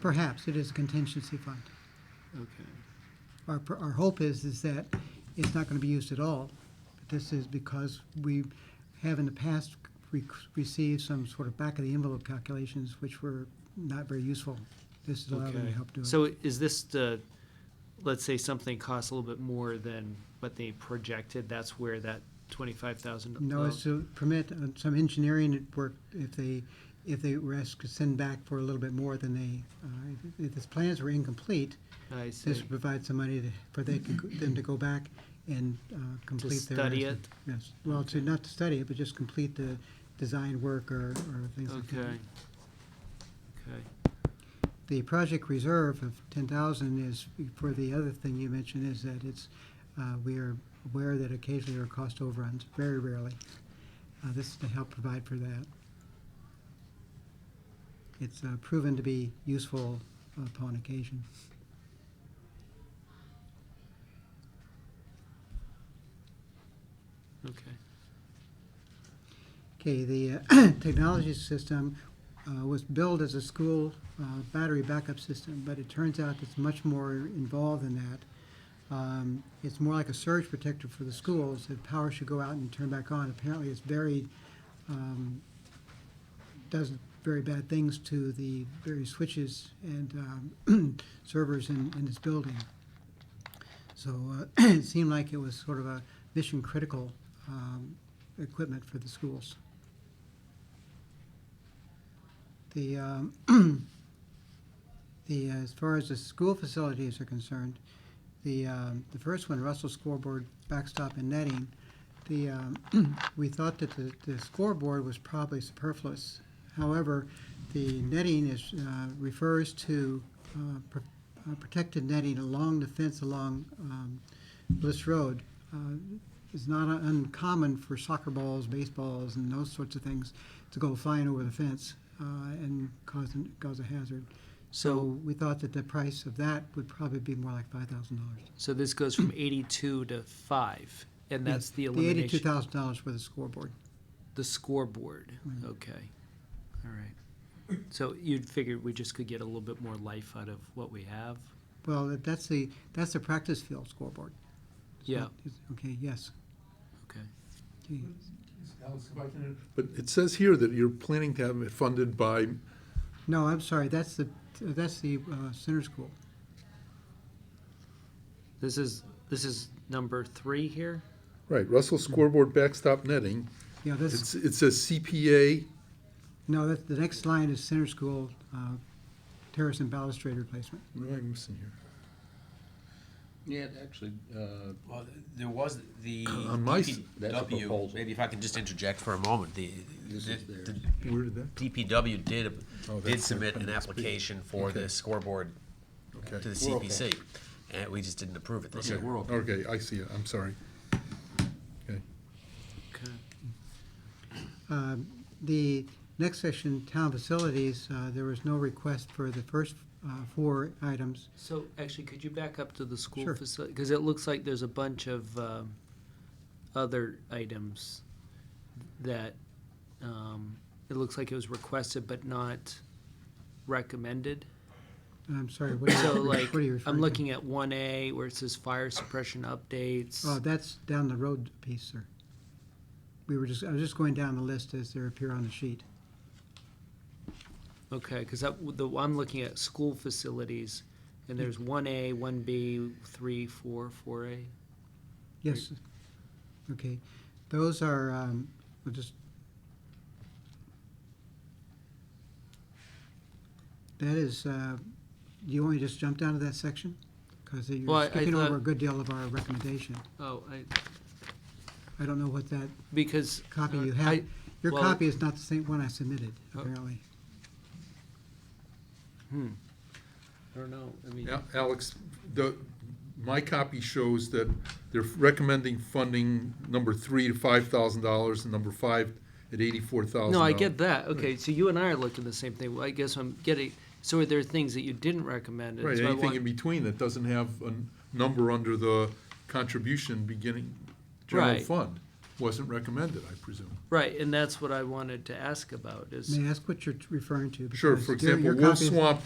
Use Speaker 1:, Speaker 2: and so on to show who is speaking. Speaker 1: Perhaps, it is a contingency fund.
Speaker 2: Okay.
Speaker 1: Our, pr- our hope is, is that it's not going to be used at all. But This is because we have in the past re- received some sort of back-of-the-envelope calculations, which were not very useful. This is allowing them to
Speaker 2: Okay.
Speaker 1: help do it.
Speaker 3: So is this the, let's say something costs a little bit more than what they projected, that's where that twenty-five thousand?
Speaker 1: No, it's to permit uh, some engineering work if they, if they were asked to send back for a little bit more than they, uh, if- if the plans were incomplete,
Speaker 3: Oh, I
Speaker 1: this
Speaker 3: see.
Speaker 1: would provide some money to- for they, could- them to go back and uh, complete their.
Speaker 3: study
Speaker 1: estimate.
Speaker 3: it?
Speaker 1: Yes, well, to not to study it, but just complete the design work or, or things like
Speaker 3: Okay.
Speaker 1: that.
Speaker 3: Okay.
Speaker 1: The project reserve of ten thousand is, for the other thing you mentioned, is that it's, uh, we are aware that occasionally there are cost overruns, very rarely. Uh, this is to help provide for that. It's uh, proven to be useful upon occasion.
Speaker 3: Okay.
Speaker 1: Okay, the uh, technology system uh, was billed as a school uh, battery backup system, but it turns out it's much more involved than that. Um, It's more like a surge protector for the schools, the power should go out and turn back on. Apparently, it's very, um, does very bad things to the various switches and um, servers in in this building. So uh, it seemed like it was sort of a mission-critical um, equipment for the schools. The, um, the, uh, as far as the school facilities are concerned, the, um, the first one, Russell scoreboard backstop and netting, the, um, we thought that the, the scoreboard was probably superfluous. However, the netting is, uh, refers to uh, pr- uh, protected netting along the fence along um, Bliss Road. Uh, It's not un- uncommon for soccer balls, baseballs, and those sorts of things to go flying over the fence uh, and cause, an- cause a hazard. So
Speaker 3: So,
Speaker 1: we thought that the price of that would probably be more like five thousand dollars.
Speaker 3: so this goes from eighty-two to five, and that's the
Speaker 1: The eighty-two
Speaker 3: elimination,
Speaker 1: thousand dollars for the scoreboard.
Speaker 3: the scoreboard,
Speaker 1: Mhm.
Speaker 3: okay, all right. So you'd figured we just could get a little bit more life out of what we have?
Speaker 1: Well, that- that's the, that's the practice field scoreboard. So
Speaker 3: Yeah,
Speaker 1: it's- Okay, yes.
Speaker 3: okay.
Speaker 1: Okay.
Speaker 2: But it says here that you're planning to have it funded by,
Speaker 1: No, I'm sorry, that's the, that's the uh, center school.
Speaker 3: This is, this is number three here?
Speaker 2: right, Russell Scoreboard Backstop Netting.
Speaker 1: Yeah, that's,
Speaker 2: It's, it says CPA,
Speaker 1: no, that's, the next line is center school uh, terrace and balustrade replacement.
Speaker 2: what am I missing here?
Speaker 4: Yeah, actually, uh,
Speaker 5: Well, there was the
Speaker 2: On my s-
Speaker 4: That's a
Speaker 5: DPW,
Speaker 4: proposal.
Speaker 5: maybe if I could just interject for a moment, the,
Speaker 4: This
Speaker 5: the-
Speaker 4: is theirs.
Speaker 5: the
Speaker 2: Where did that?
Speaker 5: DPW did,
Speaker 2: Oh, that's
Speaker 5: did
Speaker 2: the
Speaker 5: submit an
Speaker 2: appendix B.
Speaker 5: application for
Speaker 2: Okay.
Speaker 5: the scoreboard to the
Speaker 2: Okay.
Speaker 5: CPC, and we just didn't approve it this year.
Speaker 2: Okay, Okay, I see it, I'm sorry. Okay,
Speaker 3: Okay.
Speaker 1: Um, The next section, town facilities, uh, there was no request for the first uh, four items.
Speaker 3: So actually, could you back up to the school
Speaker 1: Sure.
Speaker 3: facility? Because it looks like there's a bunch of um, other items that um, it looks like it was requested but not recommended.
Speaker 1: I'm sorry, what are
Speaker 3: So
Speaker 1: you,
Speaker 3: like,
Speaker 1: what are you referring to?
Speaker 3: I'm looking at one A where it says fire suppression updates.
Speaker 1: Oh, that's down the road piece, sir. We were just, I was just going down the list as they appear on the sheet.
Speaker 3: Okay, because that, the, I'm looking at school facilities and there's one A, one B, three, four, four A.
Speaker 1: Yes, okay. Those are, um, we'll just. That is, uh, you want me to just jump down to that section? Because
Speaker 3: Well, I-
Speaker 1: you're
Speaker 3: I
Speaker 1: skipping over
Speaker 3: thought-
Speaker 1: a good deal of our recommendation.
Speaker 3: Oh, I,
Speaker 1: I don't know what that
Speaker 3: because.
Speaker 1: copy
Speaker 3: uh,
Speaker 1: you
Speaker 3: I-
Speaker 1: have. Your
Speaker 3: well-
Speaker 1: copy is not the same one I submitted,
Speaker 3: Oh.
Speaker 1: apparently.
Speaker 3: I don't know, I mean.
Speaker 2: Al- Alex, the, my copy shows that they're recommending funding number three to five thousand dollars, and number five at eighty-four thousand.
Speaker 3: No, I get that. Okay, so you and I are looking at the same thing. Well, I guess I'm getting, so are there things that you didn't recommend? and
Speaker 2: Right,
Speaker 3: so I
Speaker 2: anything
Speaker 3: want-
Speaker 2: in between that doesn't have a n- number under the contribution beginning general
Speaker 3: Right.
Speaker 2: fund wasn't recommended, I presume.
Speaker 3: Right, and that's what I wanted to ask about is.
Speaker 1: May I ask what you're referring to?
Speaker 2: Sure,
Speaker 1: Because
Speaker 2: for
Speaker 1: your-
Speaker 2: example,
Speaker 1: your
Speaker 2: Wolf
Speaker 1: copy is-
Speaker 2: Swamp